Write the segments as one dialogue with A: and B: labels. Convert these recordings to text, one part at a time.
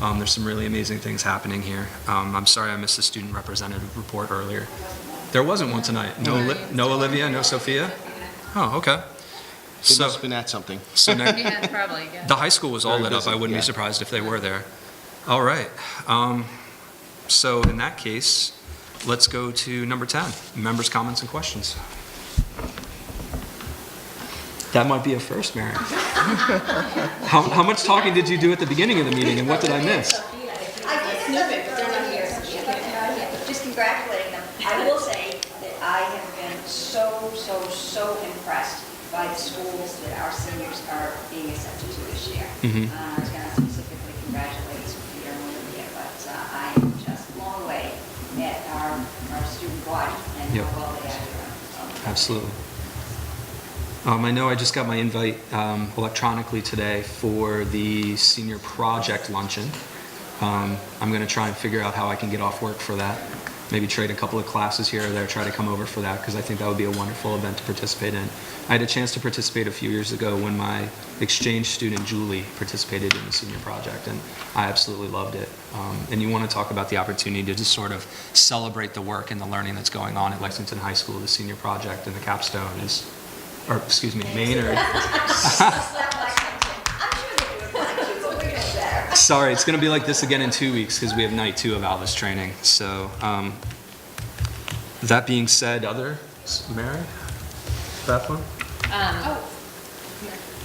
A: Um, There's some really amazing things happening here. Um, I'm sorry I missed the student representative report earlier. There wasn't one tonight. No, Oli- no Olivia, no Sophia? Oh, okay.
B: They
A: So,
B: must have been at something.
A: so next,
C: Yeah, probably, yeah.
A: The high school was all
B: Very
A: lit up.
B: busy,
A: I wouldn't be
B: yeah.
A: surprised if they were there. All right. Um, So in that case, let's go to number 10, members' comments and questions. That might be a first, Mary. How, how much talking did you do at the beginning of the meeting and what did I miss?
D: I did another, but they're not here. Yeah, Just congratulating them. I will say that I have been so, so, so impressed by the schools that our seniors are being accepted to this year.
A: Mhm.
D: Uh, I was going to specifically congratulate Peter and Olivia, but uh, I am just blown away at our, our student body and
A: Yep.
D: how well they are doing. So,
A: Absolutely. Um, I know I just got my invite um, electronically today for the senior project luncheon. Um, I'm going to try and figure out how I can get off work for that. Maybe trade a couple of classes here or there, try to come over for that because I think that would be a wonderful event to participate in. I had a chance to participate a few years ago when my exchange student Julie participated in the senior project, and I absolutely loved it. Um, and you want to talk about the opportunity to just sort of celebrate the work and the learning that's going on at Lexington High School. The senior project and the capstone is, or excuse me, Maynard.
D: Slap my content. I'm sure they do apply to, but we're gonna better.
A: Sorry, it's going to be like this again in two weeks because we have night two of Alvis training. So, um, that being said, other, Mary? That one?
C: Um,
E: Oh,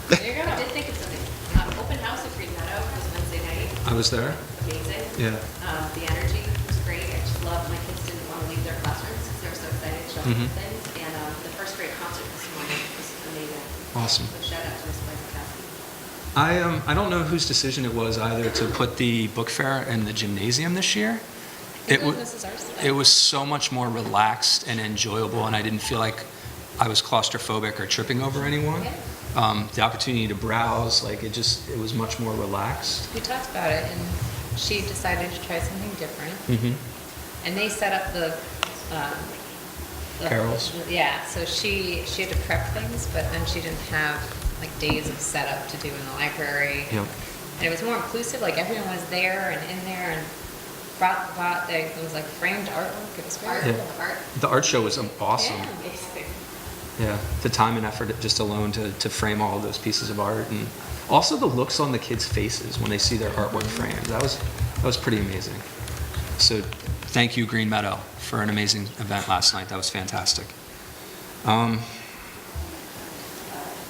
C: there you
E: I
C: go.
E: did think of something. Um, Open house at Green Meadow was Wednesday night,
A: I was there.
E: amazing.
A: Yeah.
E: Um, The energy was great. I just loved, my kids didn't want to leave their classrooms because they were so excited to show them
A: Mhm.
E: things. And um, the first grade concert this morning was amazing.
A: Awesome.
E: So shout out to Miss Blanca Cassidy.
A: I, um, I don't know whose decision it was either to put the book fair in the gymnasium this year. It wa-
C: This is ours
A: It
C: today.
A: was so much more relaxed and enjoyable, and I didn't feel like I was claustrophobic or tripping over anyone. Um, the opportunity to browse, like it just, it was much more relaxed.
C: We talked about it, and she decided to try something different,
A: Mm-hmm.
C: and they set up the, um... the-
A: Carols.
C: Yeah, so she, she had to prep things, but then she didn't have, like, days of setup to do in the library.
A: Yep.
C: And it was more inclusive, like, everyone was there and in there, and brought, brought, they- it was like framed artwork, it was
E: Art,
C: very...
E: art.
A: The art show was um, awesome.
C: Yeah.
E: Amazing.
A: Yeah, the time and effort just alone to, to frame all of those pieces of art, and also the looks on the kids' faces when they see their artwork framed. That was that was pretty amazing. So, thank you, Green Meadow, for an amazing event last night. That was fantastic. Um,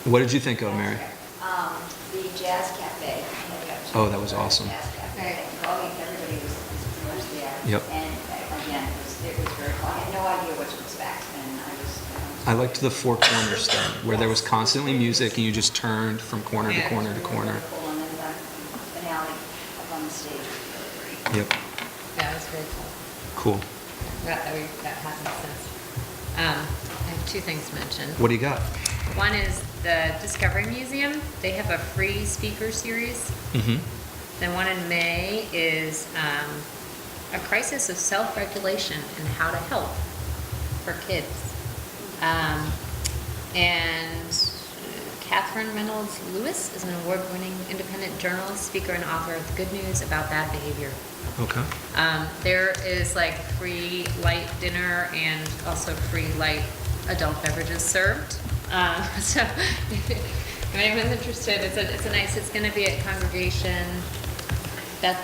A: what did you think of, Mary?
D: Um, the Jazz Cafe.
A: Oh, that was awesome.
D: Jazz Cafe. Oh, yeah, everybody was, was pretty much there.
A: Yep.
D: And uh, again, it was, it was very, cool. I had no idea what to expect, and I was. um,
A: I liked the four corners thing, where there was constantly music, and you just turned from corner to
C: Yeah.
A: corner to corner.
D: Wonderful, and then the finale up on the stage was really
A: Yep,
D: great.
C: Yeah, it was very cool.
A: cool.
C: That, that we, that hasn't since. Um, I have two things to mention.
A: What do you got?
C: One is the Discovery Museum. They have a free speaker series.
A: Mm-hmm.
C: The one in May is um, a crisis of self-regulation and how to help for kids. Um, and Catherine Reynolds Lewis is an award-winning independent journalist, speaker, and author of the Good News About Bad Behavior.
A: Okay.
C: Um, there is like free light dinner and also free light adult beverages served. Um, so if anyone's interested, it's a, it's a nice, it's gonna be at Congregation Beth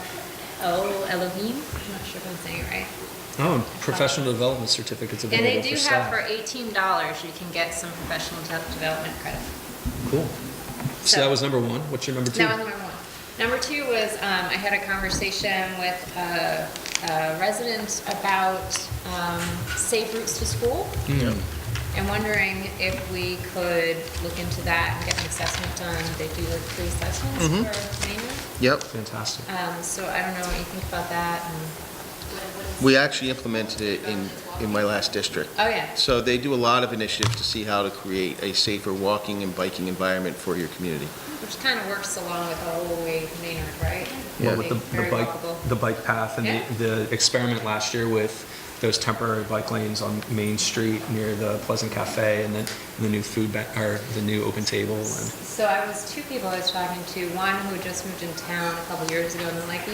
C: O Elohim. I'm not sure if I'm saying it right.
A: Oh, professional development certificates
C: And
A: available
C: they do
A: for
C: have
A: staff.
C: for eighteen dollars, you can get some professional de- development credit.
A: Cool. So
C: So-
A: that was number one. What's your number two?
C: That was number one. Number two was, um, I had a conversation with a, a resident about, um, safe routes to school.
A: Mm.
C: And wondering if we could look into that and get an assessment done. They do like three assessments
A: Mm-hmm.
C: for Maynard.
B: Yep.
A: Fantastic.
C: Um, so I don't know what you think about that and,
B: We actually implemented it in, in my last district.
C: oh yeah,
B: So they do a lot of initiatives to see how to create a safer walking and biking environment for your community.
C: which kind of works along with the whole way Maynard, right?
A: Well, with the,
C: Very
A: the bike,
C: walkable.
A: the bike path and
C: Yeah.
A: the, the experiment last year with those temporary bike lanes on Main Street near the Pleasant Cafe and then the new food ba- or the new open table and.
C: So I was, two people I was talking to, one who just moved in town a couple years ago and they're like,